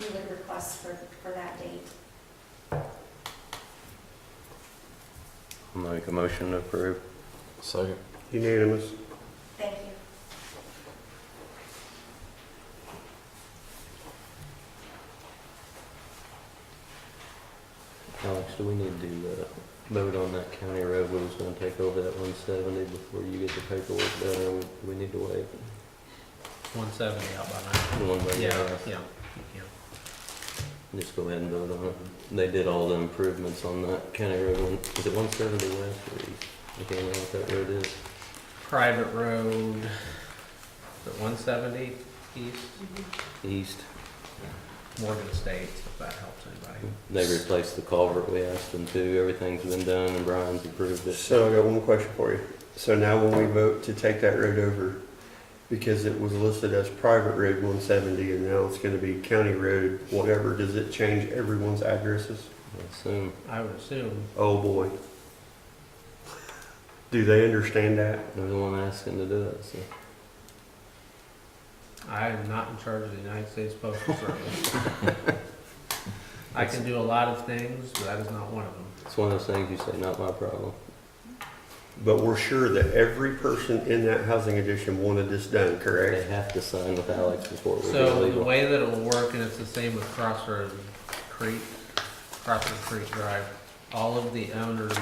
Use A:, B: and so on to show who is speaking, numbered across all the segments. A: we would request for, for that date.
B: I'll Make a motion to approve.
C: Second.
D: Unanimous.
A: Thank you.
B: Alex, do we need to uh, vote on that county road we was gonna take over that one seventy before you get the paperwork done, or we- we need to wait?
E: One seventy out by nine.
B: One way or the
E: Yeah,
B: other?
E: yeah, yeah.
B: Just go ahead and vote on it. They did all the improvements on that county road, one- is it one seventy west or east? I can't know what that road is.
E: Private road, is it one seventy east,
B: East.
E: Morgan State, if that helps anybody.
B: They replaced the culvert we asked them to, everything's been done, and Brian's approved it.
D: So I got one question for you. So now when we vote to take that road over, because it was listed as private road one seventy and now it's gonna be county road, whatever, does it change everyone's addresses?
B: I assume.
E: I would assume,
D: Oh, boy. Do they understand that?
B: They're the one asking to do it, so.
E: I am not in charge of the United States Postal Service. I can do a lot of things, but that is not one of them.
B: It's one of those things you say, not my problem.
D: But we're sure that every person in that housing addition wanted this done,
B: They
D: correct?
B: have to sign with Alex before we do
E: So the
B: legal.
E: way that it'll work, and it's the same with Crossroad Creek, Crossroad Creek Drive, all of the owners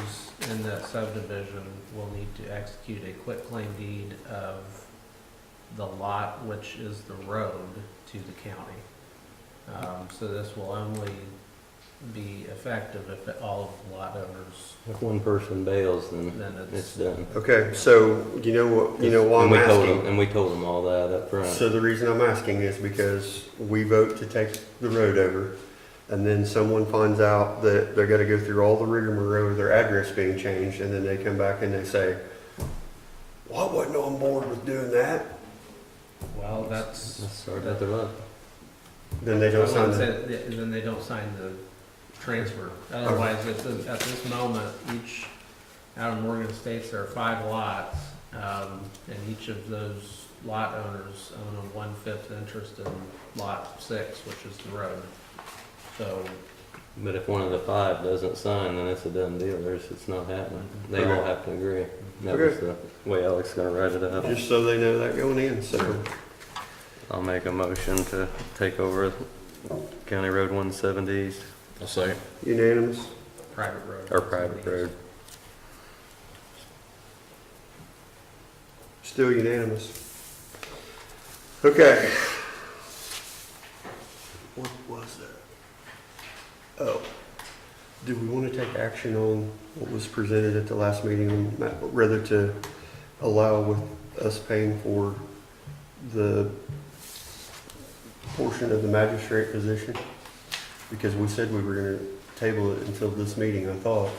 E: in that subdivision will need to execute a quitclaim deed of the lot, which is the road to the county. Um, so this will only be effective if all of the lot owners,
B: If one person bails, then
E: then
B: it's
E: it's.
B: done.
D: Okay, so you know what, you know why
B: And
D: I'm
B: we told
D: asking?
B: them- And we told them all that up front.
D: So the reason I'm asking is because we vote to take the road over, and then someone finds out that they're gonna go through all the rigmarole of their address being changed, and then they come back and they say, well, I wasn't on board with doing that,
E: Well, that's.
B: Let's start at the lot.
D: then they don't
E: I
D: sign
E: wouldn't
D: it.
E: say that- Then they don't sign the transfer. Otherwise, at this, at this moment, each, out of Morgan States, there are five lots. Um, and each of those lot owners own a one-fifth interest in lot six, which is the road. So,
B: But if one of the five doesn't sign, then it's a done deal. There's, it's not happening. They all
D: Okay.
B: have to agree. That was the way Alex is gonna write it up.
D: Just so they know that going in, so,
B: I'll make a motion to take over County Road one seventies,
C: I'll second.
D: unanimous.
E: private road.
B: or private road.
D: Still unanimous. Okay. What was that? Oh, do we want to take action on what was presented at the last meeting, ma- rather to allow with us paying for the portion of the magistrate position? Because we said we were going to table it until this meeting, I thought.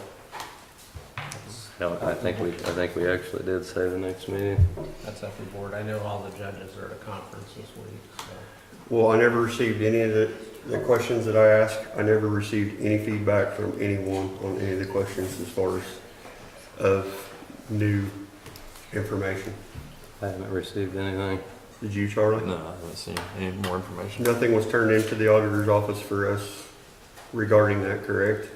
B: Hell, I think we, I think we actually did say the next meeting.
E: That's up to the board. I know all the judges are at a conference this week, so.
D: Well, I never received any of the, the questions that I asked, I never received any feedback from anyone on any of the questions as far as of new information.
B: I haven't received anything.
D: Did you, Charlie?
C: No, I haven't seen any more information.
D: Nothing was turned into the auditor's office for us regarding that, correct?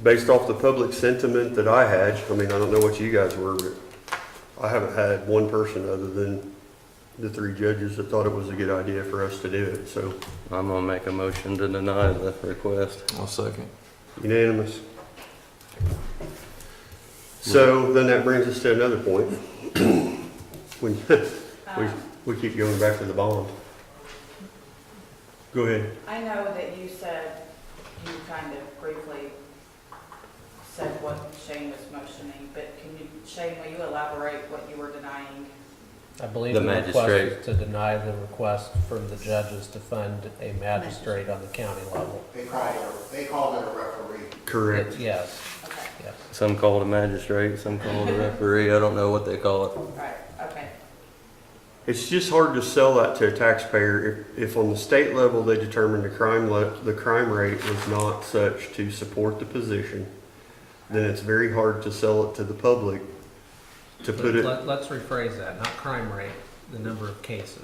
D: Based off the public sentiment that I had, I mean, I don't know what you guys were, but I haven't had one person other than the three judges that thought it was a good idea for us to do it, so
B: I'm gonna make a motion to deny the request.
C: I'll second.
D: unanimous. So then that brings us to another point. When, we,
F: Um,
D: we keep going back to the bond. Go ahead.
F: I know that you said, you kind of briefly said what Shane was motioning, but can you, Shane, will you elaborate what you were denying?
E: I believe
B: The
E: the request
B: magistrate.
E: is to deny the request from the judges to fund a magistrate on the county level.
G: They called it, they called it a referee.
D: Correct.
E: Yes,
F: Okay,
E: yes.
B: Some call it a magistrate, some call it a referee. I don't know what they call it.
F: all right, okay.
D: It's just hard to sell that to a taxpayer if, if on the state level, they determined the crime le, the crime rate was not such to support the position, then it's very hard to sell it to the public to put it,
E: Let- Let's rephrase that, not crime rate, the number of cases.